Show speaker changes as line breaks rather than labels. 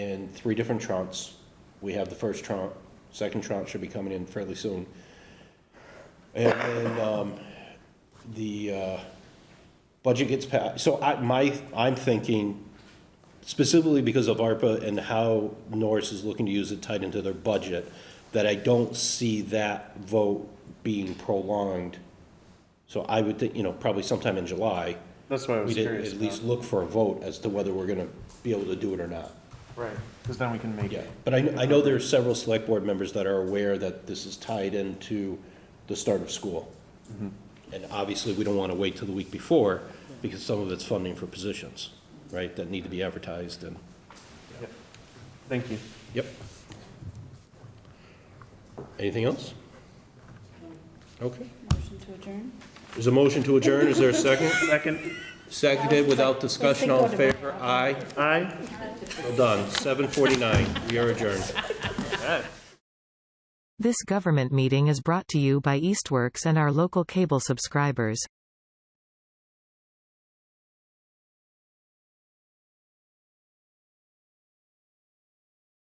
in three different tranches. We have the first tranche, second tranche should be coming in fairly soon. And then, um, the, uh, budget gets passed, so I, my, I'm thinking specifically because of ARPA and how Norris is looking to use it tied into their budget, that I don't see that vote being prolonged. So I would think, you know, probably sometime in July,
That's why I was
we'd at
curious
at least
about.
look for a vote as to whether we're gonna be able to do it or not.
Right, because then we can make
Yeah,
it.
but I, I know there are several select board members that are aware that this is tied into the start of school. And obviously, we don't want to wait till the week before, because some of it's funding for positions, right, that need to be advertised and,
Thank you.
yep. Anything else? Okay.
Motion to adjourn?
There's a motion to adjourn, is there a second?
Second,
Seconded without discussion, all in favor, aye,
aye.
well done, seven forty-nine, we are adjourned.
This government meeting is brought to you by Eastworks and our local cable subscribers.